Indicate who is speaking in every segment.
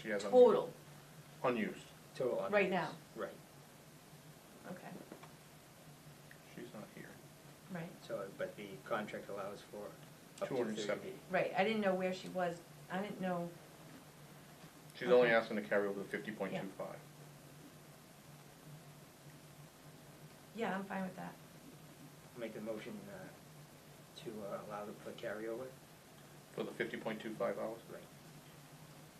Speaker 1: she has un-
Speaker 2: total,
Speaker 1: unused.
Speaker 3: Total unused.
Speaker 2: Right now.
Speaker 3: Right,
Speaker 2: okay,
Speaker 1: She's not here.
Speaker 2: right,
Speaker 3: so, but the contract allows for up to
Speaker 1: 270.
Speaker 3: thirty days.
Speaker 2: right, I didn't know where she was, I didn't know,
Speaker 1: She's only
Speaker 2: Okay.
Speaker 1: asking to carry over the fifty point two five.
Speaker 2: yeah, I'm fine with that,
Speaker 3: Make the motion uh, to uh, allow the for carryover,
Speaker 1: For the fifty point two five hours?
Speaker 3: right.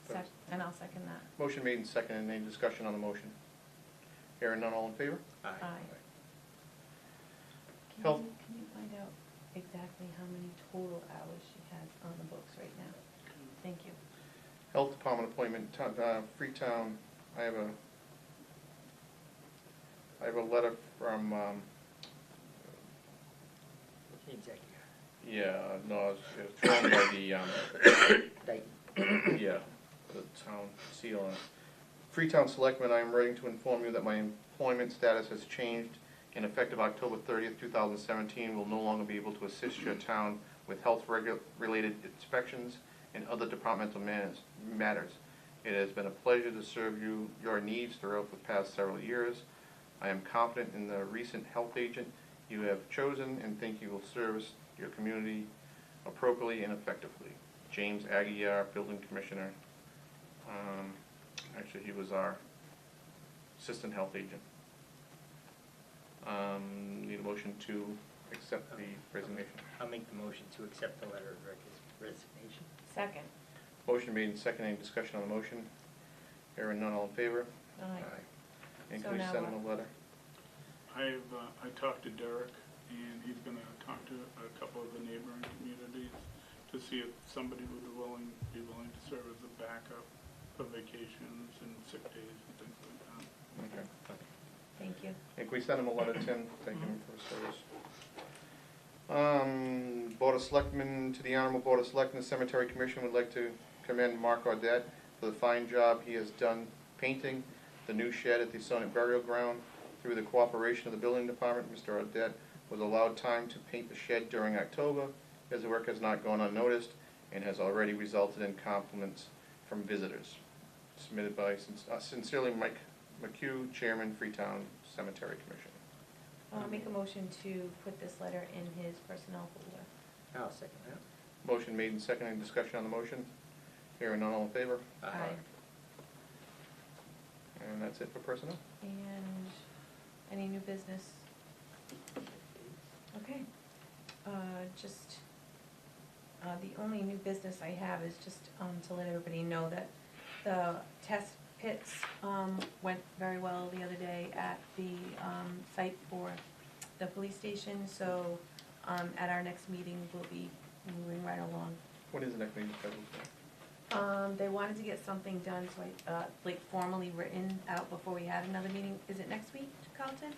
Speaker 2: Sec- and I'll second that,
Speaker 1: Motion made and second, and any discussion on the motion? Hearing none, all in favor?
Speaker 2: aye.
Speaker 3: Aye.
Speaker 2: Can
Speaker 1: Health-
Speaker 2: you, can you find out exactly how many total hours she has on the books right now? Thank you.
Speaker 1: Health Department appointment, to- uh, Freetown, I have a, I have a letter from, um,
Speaker 3: Executive.
Speaker 1: yeah, no, it's, it's drawn by the, um,
Speaker 3: Dayton.
Speaker 1: yeah, the town seal on it. Freetown Selectmen, I am writing to inform you that my employment status has changed and effective October thirtieth, two thousand seventeen, will no longer be able to assist your town with health regu- related inspections and other departmental manners- matters. It has been a pleasure to serve you, your needs throughout the past several years. I am confident in the recent health agent you have chosen and think you will service your community appropriately and effectively. James Aguirre, Building Commissioner. Um, Actually, he was our Assistant Health Agent. Um, Need a motion to accept the resignation.
Speaker 3: I'll make the motion to accept the letter of rec- resignation.
Speaker 2: Second,
Speaker 1: Motion made and seconded. Any discussion on the motion? Hearing none, all in favor?
Speaker 2: aye,
Speaker 1: And
Speaker 2: So
Speaker 1: can we
Speaker 2: now
Speaker 1: send
Speaker 2: what?
Speaker 1: them a letter?
Speaker 4: I've, uh, I talked to Derek, and he's gonna talk to a couple of the neighboring communities to see if somebody would be willing, be willing to serve as a backup for vacations and sick days and things like that.
Speaker 1: Okay.
Speaker 2: thank you.
Speaker 1: And can we send him a letter, Tim, thanking him for his service? Um, Board of Selectmen, to the Honorable Board of Selectmen, the Cemetery Commission would like to commend Mark Audette for the fine job he has done painting the new shed at the Sonnet Burial Ground. Through the cooperation of the building department, Mr. Audette was allowed time to paint the shed during October. His work has not gone unnoticed and has already resulted in compliments from visitors. Submitted by sin- uh, sincerely Mike McHugh, Chairman, Freetown Cemetery Commission.
Speaker 2: I'll make a motion to put this letter in his personnel folder.
Speaker 3: I'll second that.
Speaker 1: Motion made and seconded, Any discussion on the motion. Hearing none, all in favor?
Speaker 2: Aye.
Speaker 1: And that's it for personnel.
Speaker 2: And any new business? Okay, uh, just, uh, the only new business I have is just, um, to let everybody know that the test pits, um, went very well the other day at the, um, site for the police station, so, um, at our next meeting, we'll be moving right along
Speaker 1: What is the next meeting scheduled for?
Speaker 2: um, they wanted to get something done, so I, uh, like formally written out before we had another meeting. Is it next week, Carlton?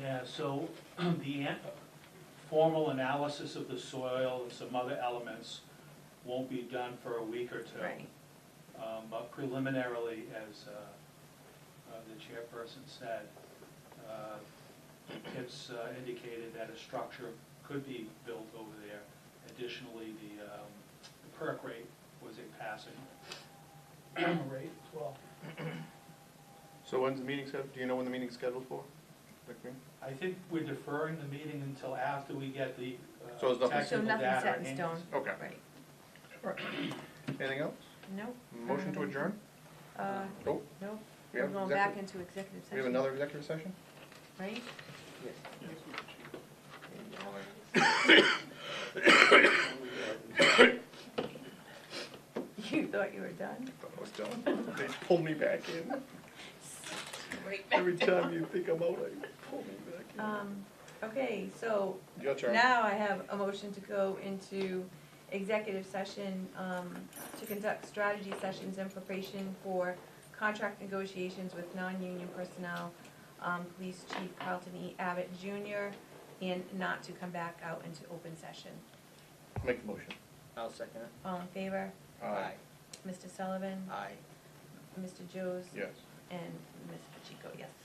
Speaker 5: Yeah, so the an- formal analysis of the soil and some other elements won't be done for a week or two.
Speaker 2: Right.
Speaker 5: Um, But preliminarily, as uh, uh, the chairperson said, uh, it's uh, indicated that a structure could be built over there. Additionally, the um, the perk rate was a passing rate as well.
Speaker 1: So when's the meeting scheduled, do you know when the meeting's scheduled for? Next meeting?
Speaker 5: I think we're deferring the meeting until after we get the uh,
Speaker 1: So it's
Speaker 5: technical
Speaker 1: nothing-
Speaker 5: data.
Speaker 2: So nothing's set in
Speaker 5: in.
Speaker 2: stone.
Speaker 1: Okay.
Speaker 2: Right.
Speaker 1: Anything else?
Speaker 2: No.
Speaker 1: Motion
Speaker 2: Um,
Speaker 1: to adjourn?
Speaker 2: Uh,
Speaker 1: Oh,
Speaker 2: no,
Speaker 1: we
Speaker 2: we're
Speaker 1: have
Speaker 2: going back
Speaker 1: executive,
Speaker 2: into executive session.
Speaker 1: we have another executive session?
Speaker 2: Right?
Speaker 3: Yes.
Speaker 4: Yes, Madam Chair.
Speaker 5: uh,
Speaker 2: You thought you were done?
Speaker 1: I thought I was Oh, done. They pull me back in.
Speaker 2: Right back
Speaker 1: Every
Speaker 2: down.
Speaker 1: time you think I'm out, they pull me back
Speaker 2: Um, okay, so
Speaker 1: in. Your turn.
Speaker 2: Now I have a motion to go into executive session um, to conduct strategy sessions in preparation for contract negotiations with non-union personnel, um, Police Chief Carlton E. Abbott Jr., and not to come back out into open session.
Speaker 1: Make the motion.
Speaker 3: I'll second it.
Speaker 2: All in favor?
Speaker 1: Aye.
Speaker 2: Mr. Sullivan?
Speaker 3: Aye.
Speaker 2: Mr. Joes?
Speaker 1: Yes.
Speaker 2: And Ms. Pacheco, yes.